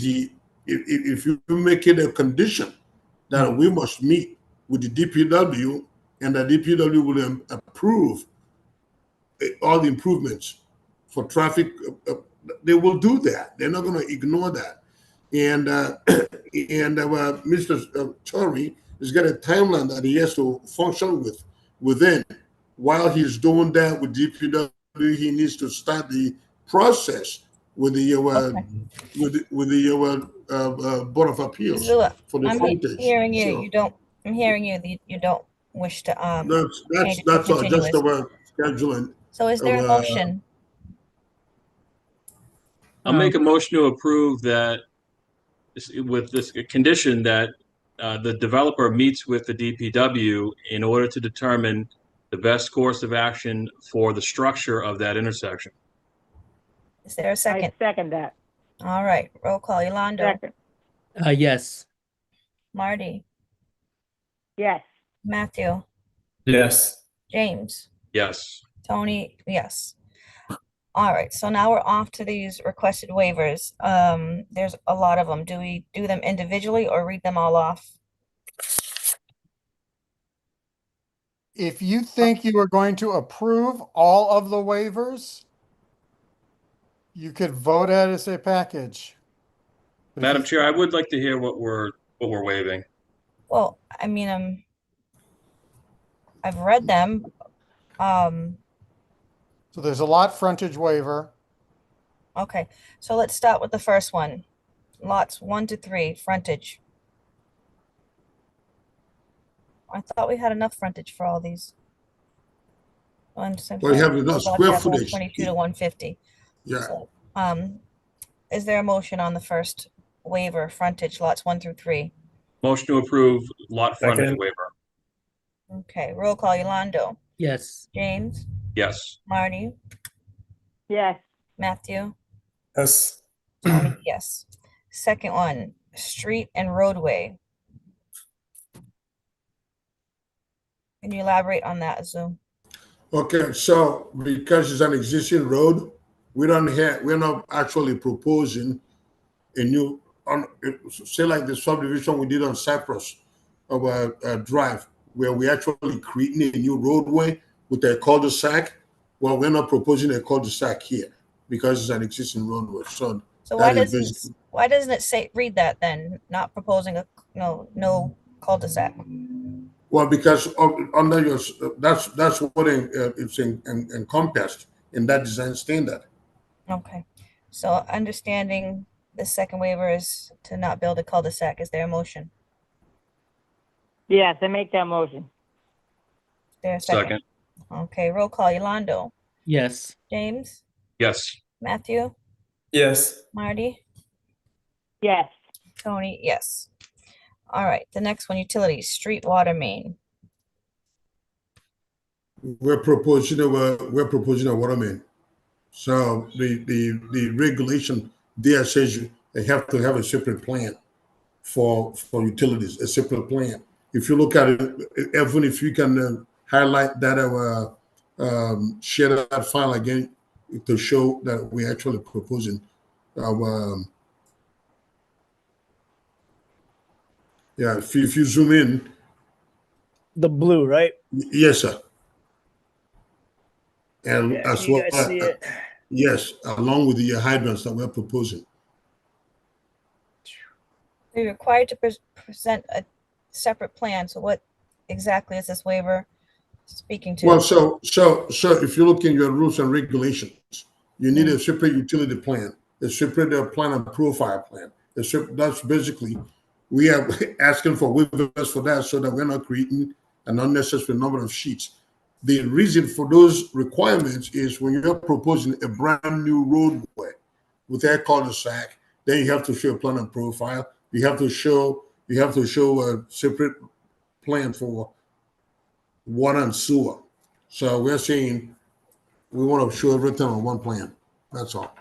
the if, if, if you make it a condition that we must meet with the DPW and the DPW will um, approve uh, all the improvements for traffic, uh, uh, they will do that. They're not going to ignore that. And, uh, and uh, Mr. uh, Torrey has got a timeline that he has to function with within. While he's doing that with DPW, he needs to start the process with the, uh, with, the- with the uh, uh, uh, Board of Appeals Zula, for the I'm he- frontage. hearing you, so- you don't, I'm hearing you, that you- you don't wish to, um, That's, that's, Okay, that's all, just continuous. about scheduling. so is there a uh, motion? I'll make a motion to approve that this- with this condition that uh, the developer meets with the DPW in order to determine the best course of action for the structure of that intersection. Is there a I second? second that. All right, roll call, Yolando, Second. Uh, yes. Marty, Yes. Matthew, Yes. James, Yes. Tony, yes. All right, so now we're off to these requested waivers. Um, there's a lot of them. Do we do them individually or read them all off? If you think you are going to approve all of the waivers, you could vote it as a package. But if Madam you- Chair, I would like to hear what we're, what we're waiving. Well, I mean, um, I've read them. Um, So there's a lot frontage waiver. Okay, so let's start with the first one. Lots one to three, frontage. I thought we had enough frontage for all these. Well, One you seventy-five, have enough Black square Apple, footage. Twenty-two to one fifty. Yeah, Um, is there a motion on the first waiver, frontage lots one through three? Motion to approve lot frontage Second. waiver. Okay, roll call, Yolando, Yes. James, Yes. Marty, Yes. Matthew, Yes. Tony, Um, yes. Second one, street and roadway. Can you elaborate on that, Azu? okay, so because it's an existing road, we don't have, we're not actually proposing a new, on, say like the subdivision we did on Cypress of uh uh Drive, where we actually creating a new roadway with a cul-de-sac. Well, we're not proposing a cul-de-sac here because it's an existing roadway, so So why That is doesn't, s- why doesn't it say, read that then, not proposing a, no, no cul-de-sac? Well, because of- under your, s- that's, that's what en- uh, it's en- en- encompassed in that design standard. Okay, so understanding the second waiver is to not build a cul-de-sac, is there a motion? Yes, I make that motion. Is There a second? Second. Okay, roll call, Yolando, Yes. James, Yes. Matthew, Yes. Marty? Yes. Tony, yes. All right, the next one, utilities, street water main. We're proposing, a wa- we're proposing a water main. So the, the, the regulation there says you, they have to have a separate plan for, for utilities, a separate plan. If you look at it, even if you can uh, highlight that, uh, um, share that file again to show that we're actually proposing our, um, yeah, if you, if you zoom in, The blue, right? Yes, sir. And as well, uh, yes, along with the hydrants that we're proposing. We're required to pres- present a separate plan, so what exactly is this waiver speaking Well, to? so, so, so if you look in your rules and regulations, you need a separate utility plan, a separate uh, plan and profile plan. A sep- That's basically, we are asking for waivers for that so that we're not creating an unnecessary number of sheets. The reason for those requirements is when you're proposing a brand new roadway with a cul-de-sac, then you have to show a plan and profile. You have to show, you have to show a separate plan for water and sewer. So we're saying we want to show everything on one plan. That's all.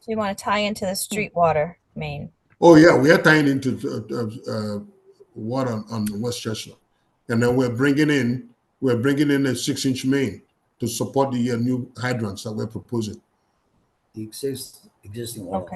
So you want to tie into the street water main? Oh, yeah, we are tying into uh, uh, uh, water on, on West Chestnut. And then we're bringing in, we're bringing in a six inch main to support the uh, new hydrants that we're proposing. the exist- existing one. Okay.